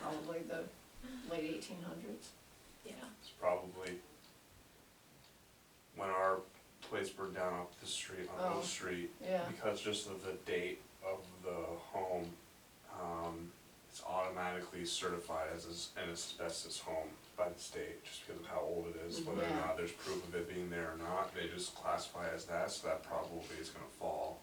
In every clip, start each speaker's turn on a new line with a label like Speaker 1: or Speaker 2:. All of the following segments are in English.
Speaker 1: probably the late eighteen hundreds. Yeah.
Speaker 2: It's probably when our place burned down up the street on
Speaker 1: Oh.
Speaker 2: Oak Street.
Speaker 1: Yeah,
Speaker 2: Because just of the date of the home, um, it's automatically certified as as- an asbestos home by the state, just because of how old it is, whether or
Speaker 1: Yeah.
Speaker 2: not there's proof of it being there or not, they just classify as that, so that probably is gonna fall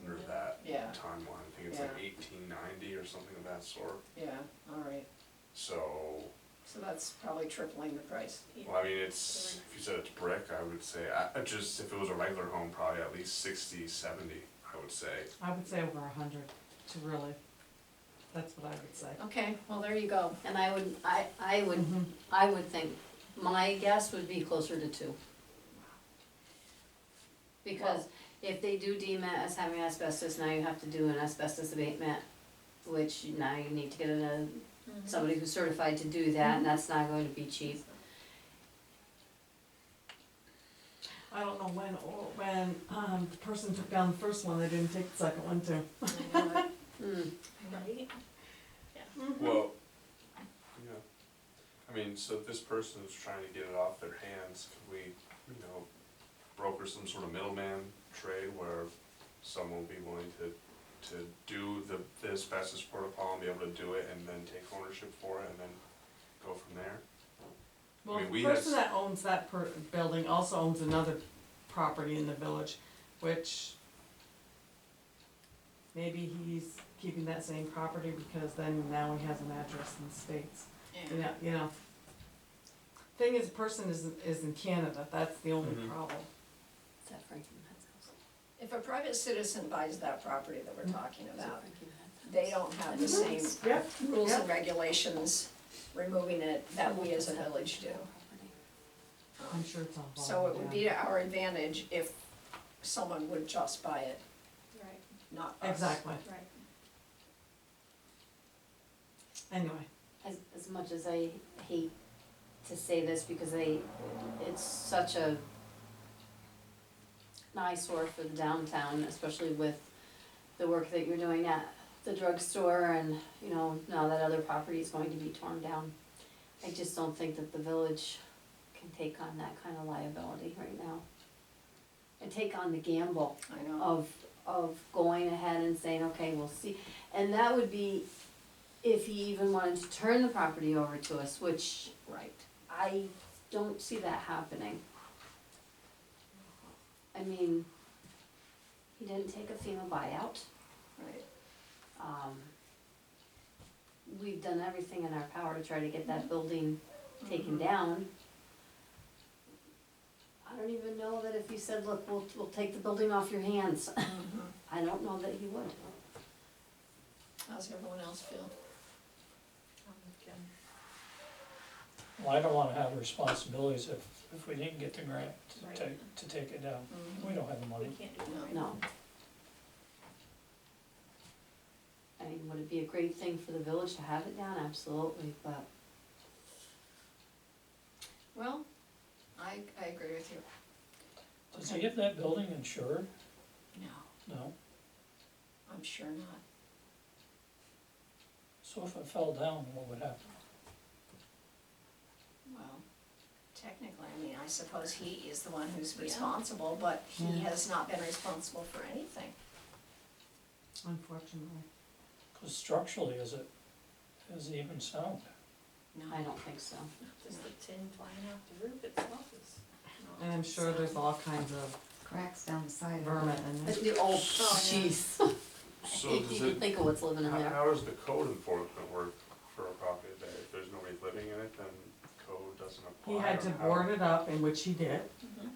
Speaker 2: under that
Speaker 1: yeah,
Speaker 2: timeline. I think it's like
Speaker 1: Yeah.
Speaker 2: eighteen ninety or something of that sort,
Speaker 1: yeah, all right,
Speaker 2: so
Speaker 1: so that's probably tripling the price.
Speaker 2: Well, I mean, it's, if you said it's brick, I would say, I, I just, if it was a regular home, probably at least 60, 70, I would say.
Speaker 3: I would say over a hundred to really, that's what I would say.
Speaker 1: Okay, well, there you go.
Speaker 4: And I would, I, I would,
Speaker 3: Mhm.
Speaker 4: I would think, my guess would be closer to two. Because if they do deem it as having asbestos, now you have to do an asbestos abatement, which now you need to get a, somebody who's certified to do that, and that's not going to be cheap.
Speaker 3: I don't know when, or when, um, the person took down the first one, they didn't take the second one too.
Speaker 1: I know it.
Speaker 4: Mm.
Speaker 5: Right?
Speaker 4: Mm-hmm.
Speaker 2: Well, yeah. I mean, so if this person is trying to get it off their hands, could we, you know, broker some sort of middleman trade where someone will be willing to, to do the, the asbestos protocol and be able to do it and then take ownership for it and then go from there?
Speaker 3: Well,
Speaker 2: mean, we
Speaker 3: the person
Speaker 2: had-
Speaker 3: that owns that per, building also owns another property in the village, which maybe he's keeping that same property because then now he has an address in the States, you
Speaker 1: Yeah,
Speaker 3: know, you know. Thing is, the person is, is in Canada, that's the only
Speaker 2: Mhm.
Speaker 3: problem.
Speaker 4: Is that Frankie Matt's house?
Speaker 1: If a private citizen buys that property that we're talking
Speaker 4: Is that
Speaker 1: about,
Speaker 4: Frankie Matt's house?
Speaker 1: they don't have the same
Speaker 3: Yep.
Speaker 1: rules and regulations removing it that we as a village do.
Speaker 3: I'm sure it's on volume.
Speaker 1: So it would
Speaker 3: yeah.
Speaker 1: be to our advantage if someone would just buy it,
Speaker 5: Right,
Speaker 1: not us.
Speaker 3: Exactly,
Speaker 5: right.
Speaker 3: anyway,
Speaker 4: As, as much as I hate to say this because I, it's such a an eyesore for the downtown, especially with the work that you're doing at the drugstore and, you know, now that other property is going to be torn down. I just don't think that the village can take on that kind of liability right now. And take on the gamble
Speaker 1: I know,
Speaker 4: of, of going ahead and saying, okay, we'll see. And that would be if he even wanted to turn the property over to us, which
Speaker 1: right.
Speaker 4: I don't see that happening. I mean, he didn't take a FEMA buyout.
Speaker 1: Right,
Speaker 4: Um, we've done everything in our power to try to get that building taken down. I don't even know that if he said, look, we'll, we'll take the building off your hands,
Speaker 1: Mhm.
Speaker 4: I don't know that he would.
Speaker 1: How's everyone else feel?
Speaker 6: Well, I don't wanna have responsibilities if, if we didn't get the grant to take, to take it down.
Speaker 1: Mhm.
Speaker 6: We don't have the
Speaker 5: We
Speaker 6: money.
Speaker 5: can't do that.
Speaker 4: No. I mean, would it be a great thing for the village to have it down? Absolutely, but
Speaker 1: Well, I, I agree with you.
Speaker 6: Does he have that building insured?
Speaker 1: No,
Speaker 6: No.
Speaker 1: I'm sure not.
Speaker 6: So if it fell down, what would happen?
Speaker 1: Well, technically, I mean, I suppose he is the one who's responsible, but he has not been responsible for anything.
Speaker 3: unfortunately.
Speaker 6: Cause structurally, is it, is it even sound?
Speaker 4: I don't think so.
Speaker 5: Just the tin flying off the roof itself is.
Speaker 3: And I'm sure there's all kinds of
Speaker 7: cracks down the side of
Speaker 3: vermin
Speaker 7: it.
Speaker 3: in there.
Speaker 4: But the old, jeez,
Speaker 2: So
Speaker 4: you
Speaker 2: does
Speaker 4: can
Speaker 2: it,
Speaker 4: think of what's living in
Speaker 2: How,
Speaker 4: there.
Speaker 2: how does the code enforcement work for a property that if there's nobody living in it, then code doesn't apply?
Speaker 3: He had
Speaker 2: or
Speaker 3: to
Speaker 2: how-
Speaker 3: board it up, in which he did,
Speaker 4: Mm-hmm.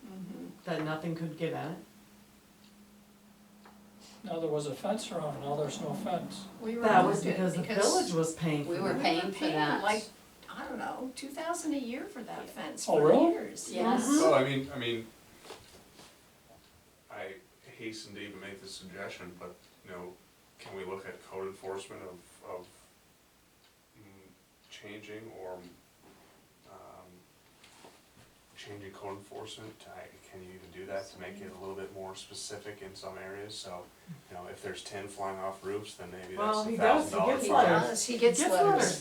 Speaker 1: Mhm.
Speaker 3: that nothing could get in it.
Speaker 6: Now, there was a fence around, now there's no fence.
Speaker 1: We
Speaker 3: That was
Speaker 1: removed it
Speaker 3: because the village was paying for
Speaker 4: We
Speaker 3: it.
Speaker 4: were
Speaker 1: We were
Speaker 4: paying for
Speaker 1: paying like,
Speaker 4: that.
Speaker 1: I don't know, two thousand a year for that fence
Speaker 6: Oh,
Speaker 1: for
Speaker 6: really?
Speaker 1: years.
Speaker 4: Yes,
Speaker 2: Well, I mean, I mean, I hasten to even make this suggestion, but, you know, can we look at code enforcement of, of mm, changing or, um, changing code enforcement, I, can you even do that to make it a little bit more specific in some areas, so, you know, if there's tin flying off roofs, then maybe
Speaker 3: Well,
Speaker 2: that's
Speaker 3: he
Speaker 2: a
Speaker 3: does,
Speaker 2: thousand
Speaker 3: he
Speaker 2: dollar
Speaker 3: gets
Speaker 2: fine.
Speaker 3: letters.
Speaker 1: Yes, he gets
Speaker 3: Gets
Speaker 1: letters.
Speaker 3: letters.